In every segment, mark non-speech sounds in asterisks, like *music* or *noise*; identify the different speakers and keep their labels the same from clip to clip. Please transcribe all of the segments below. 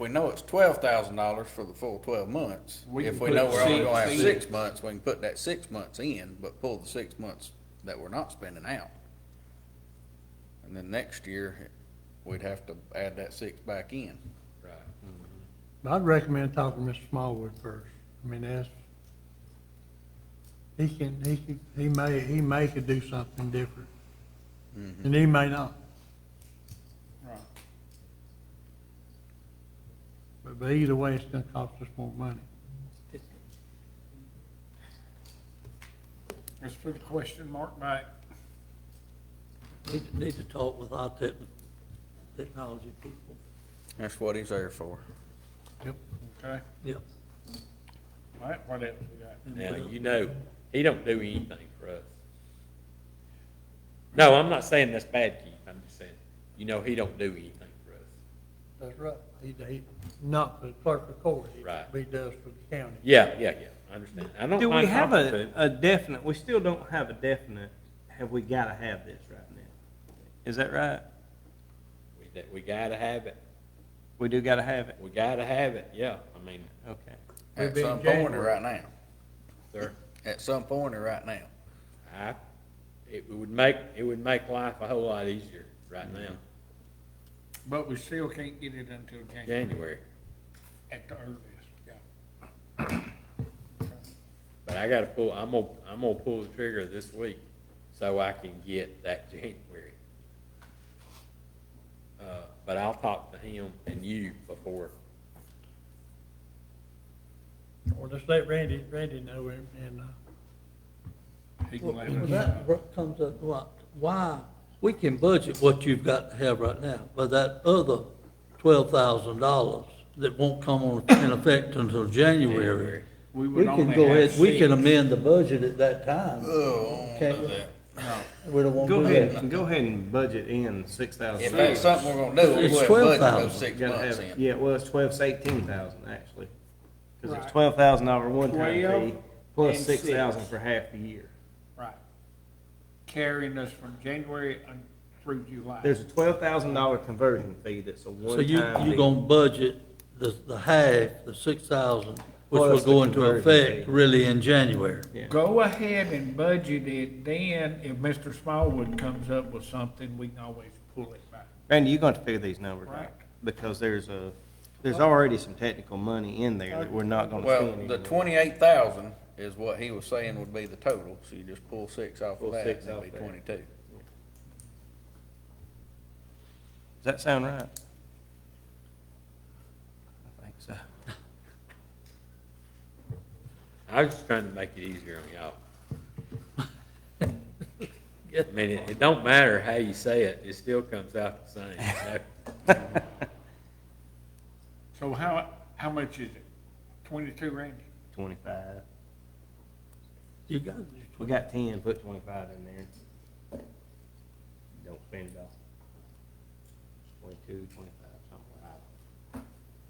Speaker 1: we know it's twelve thousand dollars for the full twelve months.
Speaker 2: We
Speaker 1: If
Speaker 2: can
Speaker 1: we know
Speaker 2: put
Speaker 1: we're only
Speaker 2: six
Speaker 1: gonna have
Speaker 2: in.
Speaker 1: six months, we can put that six months in, but pull the six months that we're not spending out. And then next year, we'd have to add that six back in.
Speaker 3: Right.
Speaker 4: I'd recommend talking to Mr. Smallwood first. I mean, that's, he can, he can, he may, he may could do something different. And he may not.
Speaker 1: Right.
Speaker 4: But, but either way, it's gonna cost us more money.
Speaker 2: Let's put a question mark back.
Speaker 5: Need, to- need to talk with our tech, technology people.
Speaker 1: That's what he's there for.
Speaker 4: Yep.
Speaker 2: Okay,
Speaker 5: Yep.
Speaker 2: all right, what else we got?
Speaker 5: and uh,
Speaker 3: Now,
Speaker 5: we'll-
Speaker 3: you know, he don't do anything for us. No, I'm not saying that's bad, Keith, I'm just saying, you know, he don't do anything for us.
Speaker 4: That's right. He, he, not for the clerk of court. he-
Speaker 3: Right.
Speaker 4: He does for the county.
Speaker 3: Yeah, yeah, yeah, I understand. I don't
Speaker 6: Do we
Speaker 3: mind
Speaker 6: have
Speaker 3: talking to
Speaker 6: a,
Speaker 3: him.
Speaker 6: a definite, we still don't have a definite, have we gotta have this right now? Is that right?
Speaker 3: We, that- we gotta have it,
Speaker 6: We do gotta have it,
Speaker 3: we gotta have it, yeah, I mean,
Speaker 6: okay.
Speaker 4: We'll
Speaker 1: At
Speaker 4: be in
Speaker 1: some point or
Speaker 4: January.
Speaker 1: right now.
Speaker 3: sir,
Speaker 1: At some point or right now.
Speaker 3: I, it would make, it would make life a whole lot easier right now,
Speaker 2: But we still can't get it until January,
Speaker 3: January.
Speaker 2: at the earliest, yeah.
Speaker 3: But I gotta pull, I'm gonna, I'm gonna pull the trigger this week so I can get that *laughs* January. Uh, but I'll talk to him and you before,
Speaker 4: Or just let Randy, Randy know and, and, uh,
Speaker 2: He can
Speaker 5: Well,
Speaker 2: let
Speaker 5: well,
Speaker 2: us
Speaker 5: that
Speaker 2: know.
Speaker 5: br- comes up, why, why, we can budget what you've got to have right now, but that other twelve thousand dollars that won't come on, in effect until January.
Speaker 3: January.
Speaker 2: We
Speaker 5: We
Speaker 2: would
Speaker 5: can
Speaker 2: only
Speaker 5: go
Speaker 2: have
Speaker 5: ahead, we can
Speaker 2: six.
Speaker 5: amend the budget at that time.
Speaker 1: Oh, I don't wanna do that.
Speaker 5: We don't want to
Speaker 6: Go
Speaker 5: do that.
Speaker 6: ahead, go ahead and budget in six
Speaker 1: If
Speaker 6: thousand.
Speaker 1: that's something we're gonna do, we'll
Speaker 5: It's
Speaker 1: go ahead and budget those
Speaker 5: 12,000.
Speaker 1: six
Speaker 6: Gotta
Speaker 1: months
Speaker 6: have it.
Speaker 1: in.
Speaker 6: Yeah, well, it's twelve, it's eighteen thousand, actually. Cause
Speaker 2: Right.
Speaker 6: it's twelve thousand dollar one-time fee,
Speaker 2: 12
Speaker 6: plus
Speaker 2: and
Speaker 6: six thousand
Speaker 2: six.
Speaker 6: for half the year.
Speaker 2: Right. Carrying us from January un- through July.
Speaker 6: There's a twelve thousand dollar conversion fee that's a
Speaker 5: So
Speaker 6: one-time.
Speaker 5: you, you
Speaker 6: fee.
Speaker 5: gonna budget the, the half, the six thousand, which will
Speaker 6: Plus the
Speaker 5: go into
Speaker 6: conversion
Speaker 5: effect
Speaker 6: fee.
Speaker 5: really in January.
Speaker 6: Yeah.
Speaker 2: Go ahead and budget it, then if Mr. Smallwood comes up with something, we can always pull it back.
Speaker 6: Randy, you're going to figure these numbers
Speaker 2: Right.
Speaker 6: out, because there's a, there's already some technical money in there that we're not going to
Speaker 1: Well,
Speaker 6: spend.
Speaker 1: the
Speaker 6: anymore.
Speaker 1: twenty-eight thousand is what he was saying would be the total, so you just pull six off
Speaker 6: Pull
Speaker 1: of that,
Speaker 6: six
Speaker 1: and it'd
Speaker 6: off
Speaker 1: be
Speaker 6: that.
Speaker 1: twenty-two.
Speaker 6: Does that sound right? I think so.
Speaker 3: I was just trying to make it easier on y'all. I mean, it, it don't matter how you say it, it still comes out the same. you know?
Speaker 2: So how, how much is it? Twenty-two, Randy?
Speaker 6: Twenty-five.
Speaker 5: You got, it.
Speaker 6: We got ten, put twenty-five in there. Don't spend it all. Twenty-two, twenty-five, something like that.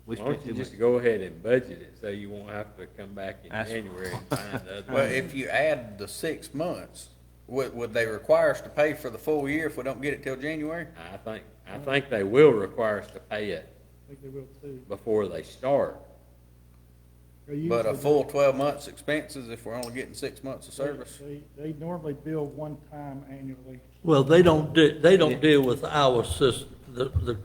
Speaker 6: We
Speaker 3: Why don't
Speaker 6: spent
Speaker 3: you
Speaker 6: too
Speaker 3: just
Speaker 6: much.
Speaker 3: go ahead and budget it so you won't have to come back in
Speaker 6: That's-
Speaker 3: January and find
Speaker 1: *laughs*
Speaker 3: the other.
Speaker 1: Well, if you add the six months, would, would they require us to pay for the full year if we don't get it till January?
Speaker 3: I think, I think they will require us to pay it before they start.
Speaker 1: But a full twelve months expenses if we're only getting six months of service?
Speaker 7: They, they normally bill one time annually.
Speaker 5: well, they don't, de- they don't deal with our system, the, the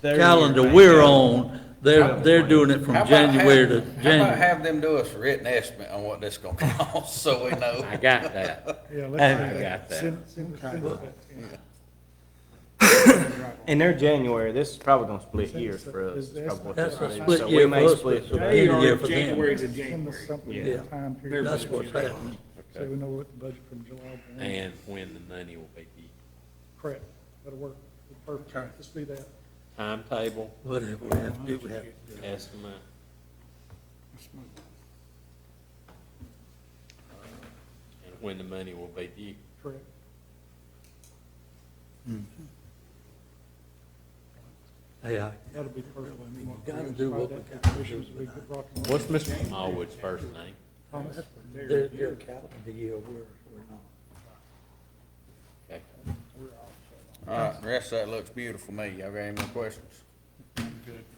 Speaker 6: Their
Speaker 5: calendar
Speaker 6: year,
Speaker 5: we're
Speaker 6: right.
Speaker 5: on, they're, they're doing it
Speaker 1: How
Speaker 5: from
Speaker 1: about have-
Speaker 5: January to
Speaker 1: How about
Speaker 5: January.
Speaker 1: have them do us a written estimate on what this gonna *laughs* cost, so we
Speaker 6: *laughs*
Speaker 1: know?
Speaker 3: I got that.
Speaker 7: Yeah,
Speaker 6: And-
Speaker 7: let's
Speaker 3: I
Speaker 7: do that.
Speaker 3: got that.
Speaker 7: Send- send- send us that.
Speaker 6: In their January, this is probably going to split years for us.
Speaker 7: Is
Speaker 6: is probably what
Speaker 5: That's
Speaker 6: this
Speaker 5: a
Speaker 6: is.
Speaker 5: split
Speaker 6: So
Speaker 5: year
Speaker 6: we may
Speaker 5: for us,
Speaker 6: split
Speaker 5: but-
Speaker 6: it.
Speaker 2: They
Speaker 5: Yeah,
Speaker 2: are
Speaker 5: for them.
Speaker 2: January to
Speaker 7: Send us
Speaker 2: January.
Speaker 7: something
Speaker 6: Yeah.
Speaker 7: in time period.
Speaker 5: That's what's happening.
Speaker 7: So we know what the budget from July one,
Speaker 3: And when the money will be, the
Speaker 7: correct, that'll work, perfect,
Speaker 2: Okay.
Speaker 7: let's do that.
Speaker 3: timetable,
Speaker 5: Whatever we have to do, we have to do.
Speaker 3: estimate. And when the money will be due.
Speaker 7: Correct.
Speaker 5: Hey, I,
Speaker 7: That'll be perfect. You
Speaker 5: gotta do what we
Speaker 7: We could rock and roll.
Speaker 3: What's Mr. Smallwood's first name?
Speaker 5: their, their calendar year, we're, we're not.
Speaker 3: Okay.
Speaker 1: All right, the rest of that looks beautiful to me. Y'all got any more questions?
Speaker 2: I'm good.